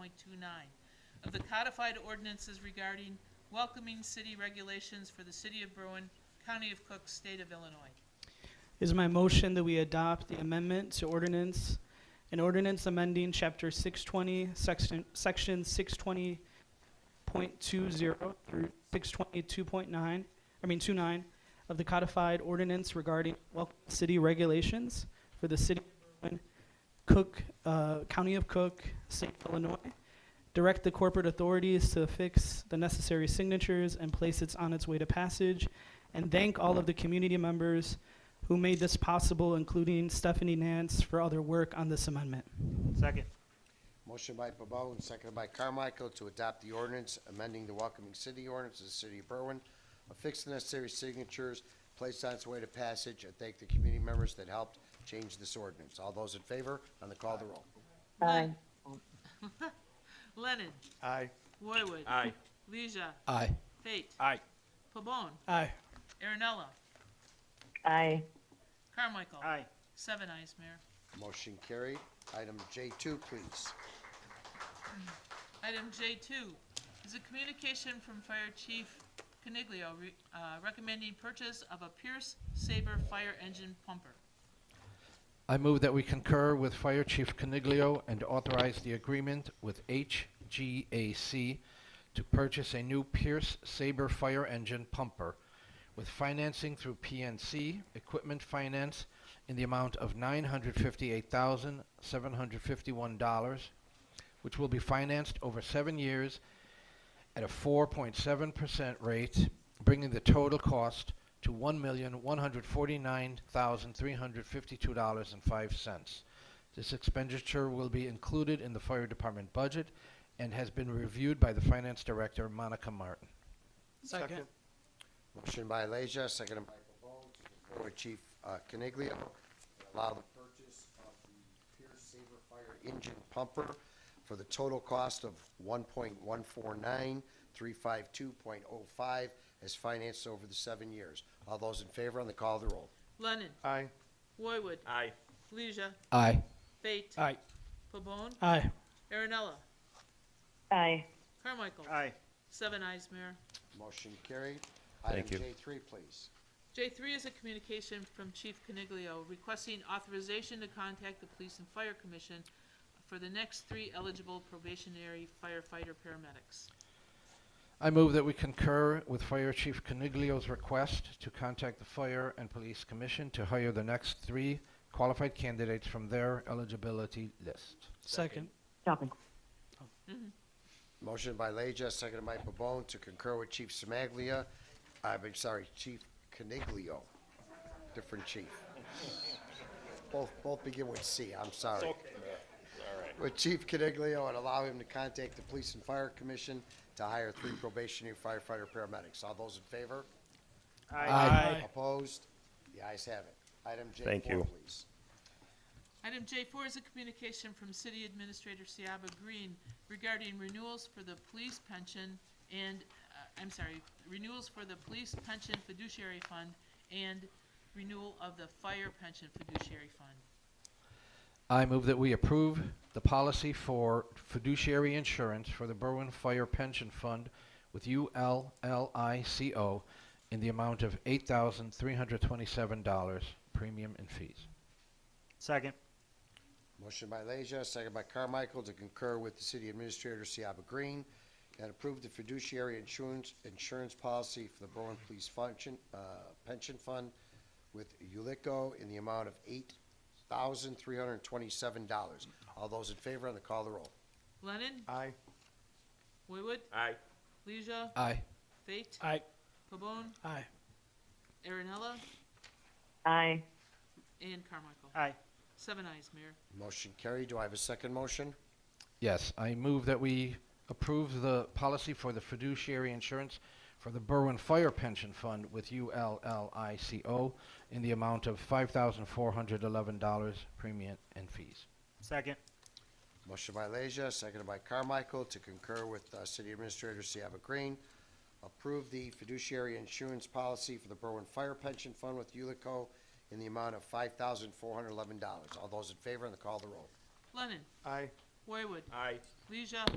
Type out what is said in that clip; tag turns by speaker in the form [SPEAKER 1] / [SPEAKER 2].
[SPEAKER 1] point two nine of the codified ordinances regarding welcoming city regulations for the city of Berwyn, county of Cook, state of Illinois.
[SPEAKER 2] Is my motion that we adopt the amendment to ordinance, an ordinance amending chapter six twenty, section, section six twenty point two zero through six twenty two point nine, I mean two nine, of the codified ordinance regarding welcome city regulations for the city of Berwyn, Cook, uh, County of Cook, State of Illinois. Direct the corporate authorities to affix the necessary signatures and place it on its way to passage, and thank all of the community members who made this possible, including Stephanie Nance, for all their work on this amendment.
[SPEAKER 3] Second.
[SPEAKER 4] Motion by Babone, and seconded by Carmichael to adopt the ordinance amending the Welcoming City ordinance of the City of Berwyn, affix the necessary signatures, place on its way to passage, and thank the community members that helped change this ordinance. All those in favor on the call of the roll.
[SPEAKER 1] Aye. Lennon.
[SPEAKER 3] Aye.
[SPEAKER 1] Roywood.
[SPEAKER 3] Aye.
[SPEAKER 1] Leisure.
[SPEAKER 5] Aye.
[SPEAKER 1] Fate.
[SPEAKER 3] Aye.
[SPEAKER 1] Pabon.
[SPEAKER 2] Aye.
[SPEAKER 1] Aaronella.
[SPEAKER 6] Aye.
[SPEAKER 1] Carmichael.
[SPEAKER 3] Aye.
[SPEAKER 1] Seven ayes, Mayor.
[SPEAKER 4] Motion carried. Item J two, please.
[SPEAKER 1] Item J2 is a communication from Fire Chief Caniglio re- uh, recommending purchase of a Pierce Saber fire engine pumper.
[SPEAKER 5] I move that we concur with Fire Chief Caniglio and authorize the agreement with HGAC to purchase a new Pierce Saber fire engine pumper with financing through PNC Equipment Finance in the amount of $958,751, which will be financed over seven years at a 4.7% rate, bringing the total cost to $1,149,352.05. This expenditure will be included in the fire department budget and has been reviewed by the finance director, Monica Martin.
[SPEAKER 3] Second.
[SPEAKER 4] Motion by Leisure, seconded by Pavone, to concur with Chief uh, Caniglio, allow the purchase of the Pierce Saber Fire Engine Pumper for the total cost of one point one four nine, three five two point oh five, as financed over the seven years. All those in favor on the call of the roll.
[SPEAKER 1] Lennon.
[SPEAKER 3] Aye.
[SPEAKER 1] Roywood.
[SPEAKER 3] Aye.
[SPEAKER 1] Leisure.
[SPEAKER 5] Aye.
[SPEAKER 1] Fate.
[SPEAKER 3] Aye.
[SPEAKER 1] Pabon.
[SPEAKER 2] Aye.
[SPEAKER 1] Aaronella.
[SPEAKER 6] Aye.
[SPEAKER 1] Carmichael.
[SPEAKER 3] Aye.
[SPEAKER 1] Seven ayes, Mayor.
[SPEAKER 4] Motion carried.
[SPEAKER 7] Thank you.
[SPEAKER 4] Item J three, please.
[SPEAKER 1] J3 is a communication from Chief Caniglio requesting authorization to contact the Police and Fire Commission for the next three eligible probationary firefighter paramedics.
[SPEAKER 5] I move that we concur with Fire Chief Caniglio's request to contact the Fire and Police Commission to hire the next three qualified candidates from their eligibility list.
[SPEAKER 2] Second.
[SPEAKER 6] Stop it.
[SPEAKER 4] Motion by Leja, seconded by Pabon, to concur with Chief Smaglia, I'm sorry, Chief Caniglio, different chief. Both, both begin with C, I'm sorry. With Chief Caniglio and allow him to contact the Police and Fire Commission to hire three probationary firefighter paramedics. All those in favor?
[SPEAKER 2] Aye.
[SPEAKER 4] Opposed? The ayes have it. Item J
[SPEAKER 7] Thank
[SPEAKER 4] four,
[SPEAKER 7] you.
[SPEAKER 4] please.
[SPEAKER 1] Item J4 is a communication from City Administrator Siaba Green regarding renewals for the police pension and, uh, I'm sorry, renewals for the police pension fiduciary fund and renewal of the fire pension fiduciary fund.
[SPEAKER 5] I move that we approve the policy for fiduciary insurance for the Berwyn Fire Pension Fund with ULLICO in the amount of $8,327 premium and fees.
[SPEAKER 3] Second.
[SPEAKER 4] Motion by Leisure, second by Carmichael, to concur with the city administrator, Siaba Green, and approve the fiduciary insurance, insurance policy for the Berlin Police Function, uh, Pension Fund with Ulico in the amount of eight thousand three hundred and twenty-seven dollars. All those in favor on the call of the roll.
[SPEAKER 1] Lennon?
[SPEAKER 3] Aye.
[SPEAKER 1] Roywood?
[SPEAKER 3] Aye.
[SPEAKER 1] Leisure?
[SPEAKER 5] Aye.
[SPEAKER 1] Fate?
[SPEAKER 2] Aye.
[SPEAKER 1] Pabon?
[SPEAKER 2] Aye.
[SPEAKER 1] Aaronella?
[SPEAKER 6] Aye.
[SPEAKER 1] And Carmichael.
[SPEAKER 3] Aye.
[SPEAKER 1] Seven ayes, Mayor.
[SPEAKER 4] Motion carried. Do I have a second motion?
[SPEAKER 5] Yes, I move that we approve the policy for the fiduciary insurance for the Berwyn Fire Pension Fund with ULLICO in the amount of $5,411 premium and fees.
[SPEAKER 3] Second.
[SPEAKER 4] Motion by Leisure, seconded by Carmichael, to concur with uh, City Administrator Siaba Green. Approve the fiduciary insurance policy for the Berwyn Fire Pension Fund with Ulico in the amount of five thousand four hundred eleven dollars. All those in favor on the call of the roll.
[SPEAKER 1] Lennon?
[SPEAKER 3] Aye.
[SPEAKER 1] Roywood?
[SPEAKER 3] Aye.
[SPEAKER 1] Leisure?